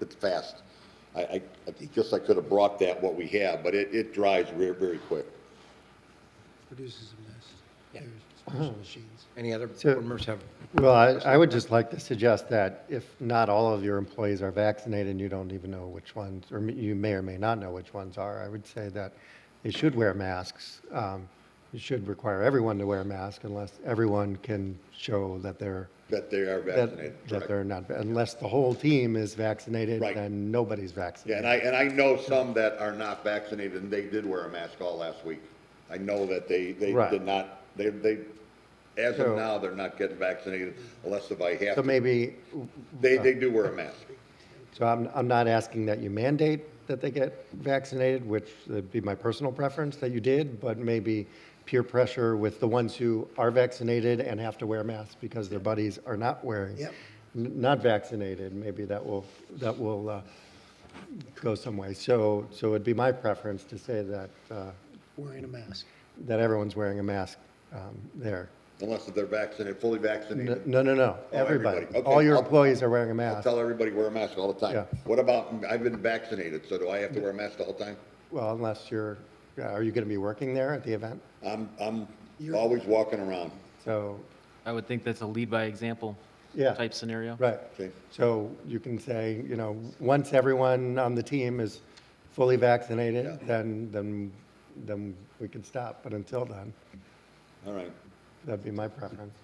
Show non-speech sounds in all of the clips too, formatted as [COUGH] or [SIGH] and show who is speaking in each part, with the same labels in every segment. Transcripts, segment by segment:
Speaker 1: it's fast. I, I, I think- guess I could have brought that, what we have, but it, it dries very, very quick.
Speaker 2: produces a mess. There's special machines.
Speaker 3: Any other
Speaker 4: So-
Speaker 3: board members have?
Speaker 4: Well, I, I would just like to suggest that if not all of your employees are vaccinated, you don't even know which ones, or m- you may or may not know which ones are, I would say that they should wear masks. Um, You should require everyone to wear a mask unless everyone can show that they're,
Speaker 1: That they are vaccinated.
Speaker 4: that,
Speaker 1: correct.
Speaker 4: that they're not, unless the whole team is vaccinated,
Speaker 1: Right.
Speaker 4: then nobody's
Speaker 1: Yeah,
Speaker 4: vaccinated.
Speaker 1: and I, and I know some that are not vaccinated, and they did wear a mask all last week. I know that they, they
Speaker 4: Right.
Speaker 1: did not, they, they, as of
Speaker 4: So-
Speaker 1: now, they're not getting vaccinated unless if I have to.
Speaker 4: So maybe, uh,
Speaker 1: They, they do wear a mask.
Speaker 4: so I'm, I'm not asking that you mandate that they get vaccinated, which would be my personal preference that you did, but maybe peer pressure with the ones who are vaccinated and have to wear masks because their buddies are not wearing,
Speaker 2: Yep.
Speaker 4: n- not vaccinated, maybe that will, that will uh, go some way. So, so it'd be my preference to say that, uh,
Speaker 2: Wearing a mask.
Speaker 4: that everyone's wearing a mask um, there.
Speaker 1: Unless if they're vaccinated, fully
Speaker 4: N-
Speaker 1: vaccinated.
Speaker 4: No, no, no,
Speaker 1: Oh, everybody.
Speaker 4: everybody.
Speaker 1: Okay,
Speaker 4: All your
Speaker 1: I'll-
Speaker 4: employees are wearing a
Speaker 1: I
Speaker 4: mask.
Speaker 1: tell everybody wear a mask all the time.
Speaker 4: Yeah.
Speaker 1: What about, I've been vaccinated, so do I have to wear a mask the whole time?
Speaker 4: Well, unless you're, uh, are you going to be working there at the event?
Speaker 1: I'm, I'm always walking around.
Speaker 4: So,
Speaker 5: I would think that's a lead by example
Speaker 4: Yeah.
Speaker 5: type scenario.
Speaker 4: right.
Speaker 1: Okay.
Speaker 4: So you can say, you know, once everyone on the team is fully vaccinated, then, then, then we can stop. But until then,
Speaker 1: All right.
Speaker 4: that'd be my preference.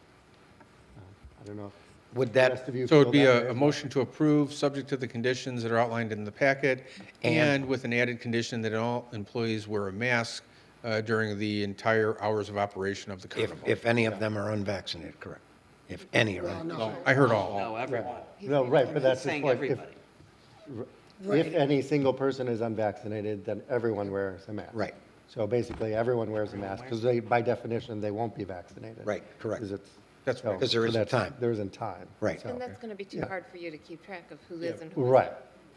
Speaker 4: Uh, I don't know. if
Speaker 3: Would
Speaker 4: the rest
Speaker 3: that,
Speaker 4: of you
Speaker 6: So
Speaker 4: feel
Speaker 6: it'd be
Speaker 4: that
Speaker 6: a,
Speaker 4: way.
Speaker 6: a motion to approve, subject to the conditions that are outlined in the packet, and with an added condition that all employees wear a mask uh, during the entire hours of operation of the
Speaker 3: if,
Speaker 6: carnival.
Speaker 3: if any of them are unvaccinated, correct? If any are, un-
Speaker 2: No,
Speaker 6: I heard all.
Speaker 7: No, everyone.
Speaker 4: No, right, but that's the
Speaker 7: Saying
Speaker 4: point. If-
Speaker 7: everybody.
Speaker 4: If any single person is unvaccinated, then everyone wears a mask.
Speaker 3: Right.
Speaker 4: So basically, everyone wears a mask because they, by definition, they won't be vaccinated.
Speaker 3: Right, correct.
Speaker 4: 'Cause it's-
Speaker 6: That's
Speaker 4: so-
Speaker 3: 'Cause there
Speaker 4: so
Speaker 3: isn't
Speaker 4: that's-
Speaker 3: time.
Speaker 4: There isn't time.
Speaker 3: Right.
Speaker 4: so-
Speaker 8: And that's going to be too hard for you to keep track of who is and who isn't.
Speaker 4: Right.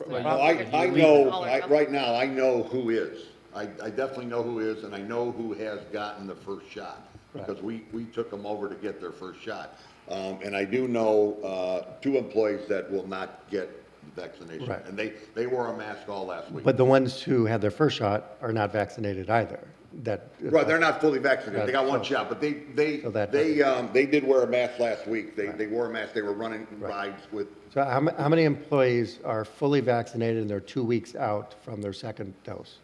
Speaker 1: No, I, I know, I, right now, I know who is. I, I definitely know who is, and I know who has gotten the first shot, because we, we took them over to get their first shot. Um, and I do know, uh, two employees that will not get vaccination.
Speaker 4: Right.
Speaker 1: And they, they wore a mask all last week.
Speaker 4: But the ones who had their first shot are not vaccinated either. That.
Speaker 1: Right, they're not fully vaccinated, they got
Speaker 4: Right,
Speaker 1: one
Speaker 4: so-
Speaker 1: shot, but they, they,
Speaker 4: So that
Speaker 1: they, um, they did wear a mask last week. They, they wore a mask, they were running
Speaker 4: Right.
Speaker 1: rides with,
Speaker 4: So how, ma- how many employees are fully vaccinated and they're two weeks out from their second dose?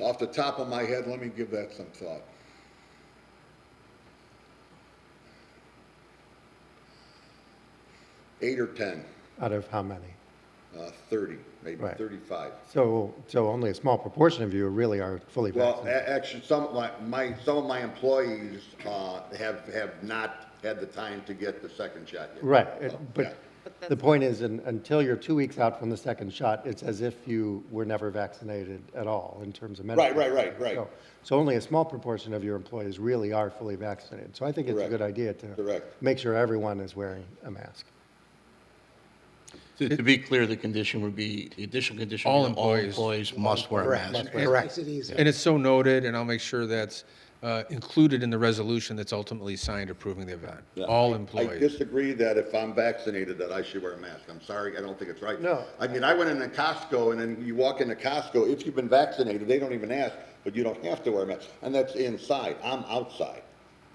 Speaker 1: off the top of my head, let me give that some thought. Eight or 10,
Speaker 4: Out of how many?
Speaker 1: uh, 30, maybe
Speaker 4: Right.
Speaker 1: 35.
Speaker 4: So, so only a small proportion of you really are fully
Speaker 1: Well,
Speaker 4: vaccinated.
Speaker 1: a- actually, some of my, my, some of my employees, uh, have, have not had the time to get the second shot yet.
Speaker 4: Right, it-
Speaker 1: So, Oh, yeah.
Speaker 4: but the point is, un- until you're two weeks out from the second shot, it's as if you were never vaccinated at all in terms of medical.
Speaker 1: Right, right, right, right.
Speaker 4: So- So only a small proportion of your employees really are fully vaccinated. So I think it's a
Speaker 1: Correct.
Speaker 4: good idea to
Speaker 1: Correct.
Speaker 4: make sure everyone is wearing a mask.
Speaker 9: To to be clear, the condition would be, the additional condition.
Speaker 6: All
Speaker 9: would be
Speaker 6: employees.
Speaker 9: employees must wear a mask.
Speaker 3: correct?
Speaker 2: Makes it easy.
Speaker 6: And it's so noted, and I'll make sure that's uh, included in the resolution that's ultimately signed approving the event. All
Speaker 1: I
Speaker 6: employees.
Speaker 1: disagree that if I'm vaccinated that I should wear a mask. I'm sorry, I don't think it's right.
Speaker 4: No.
Speaker 1: I mean, I went into Costco and then you walk into Costco, if you've been vaccinated, they don't even ask, but you don't have to wear a mask. And that's inside, I'm outside.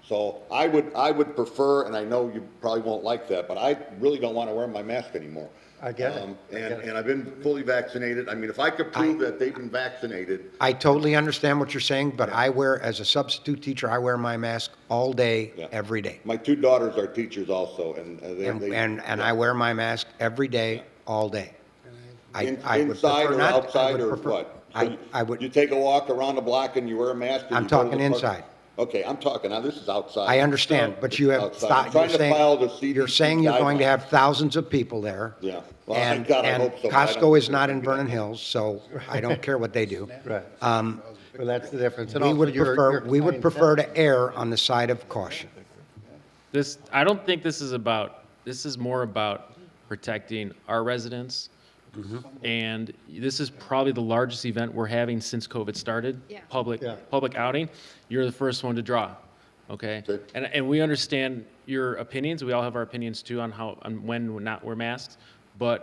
Speaker 1: So I would, I would prefer, and I know you probably won't like that, but I really don't want to wear my mask anymore.
Speaker 4: I get it.
Speaker 1: Um,
Speaker 4: I get
Speaker 1: And,
Speaker 4: it.
Speaker 1: and I've been fully vaccinated. I mean, if I could prove that they've been vaccinated,
Speaker 3: I totally understand what you're saying, but I wear, as a substitute teacher, I wear my mask all day,
Speaker 1: Yeah.
Speaker 3: every day.
Speaker 1: my two daughters are teachers also and uh, they.
Speaker 3: And,
Speaker 1: they-
Speaker 3: and, and I wear my mask every day, all day. I,
Speaker 1: In-
Speaker 3: I would
Speaker 1: Inside
Speaker 3: prefer
Speaker 1: or
Speaker 3: not. I would
Speaker 1: outside or
Speaker 3: prefer-
Speaker 1: what? So
Speaker 3: I,
Speaker 1: you-
Speaker 3: I
Speaker 1: You
Speaker 3: would,
Speaker 1: take a walk around the block and you wear a mask? and
Speaker 3: I'm
Speaker 1: you go to the
Speaker 3: talking
Speaker 1: park-
Speaker 3: inside.
Speaker 1: Okay, I'm talking, now this is outside.
Speaker 3: I understand, but you have,
Speaker 1: Outside. I'm
Speaker 3: thou- you're
Speaker 1: trying to file the
Speaker 3: saying,
Speaker 1: CDC
Speaker 3: you're saying you're going to
Speaker 1: guidelines.
Speaker 3: have thousands of people there.
Speaker 1: Yeah. Well, thank
Speaker 3: And,
Speaker 1: God I
Speaker 3: and
Speaker 1: hope so, but I don't
Speaker 3: Costco is
Speaker 1: think
Speaker 3: not
Speaker 1: it's
Speaker 3: in
Speaker 1: gonna
Speaker 3: Vernon Hills, so I don't care what
Speaker 1: [LAUGHS]
Speaker 3: they do.
Speaker 4: Right. Well, that's the difference. And
Speaker 3: Um, We
Speaker 4: also
Speaker 3: would
Speaker 4: your-
Speaker 3: prefer,
Speaker 4: your
Speaker 3: we would
Speaker 4: clientele-
Speaker 3: prefer to err on the side of caution.
Speaker 5: This, I don't think this is about, this is more about protecting our residents.
Speaker 4: Mm-hmm.
Speaker 5: And this is probably the largest event we're having since COVID started.
Speaker 8: Yeah.
Speaker 5: Public,
Speaker 4: Yeah.
Speaker 5: public outing. You're the first one to draw, okay?
Speaker 1: Okay.
Speaker 5: And, and we understand your opinions. We all have our opinions too on how, on when not wear masks. But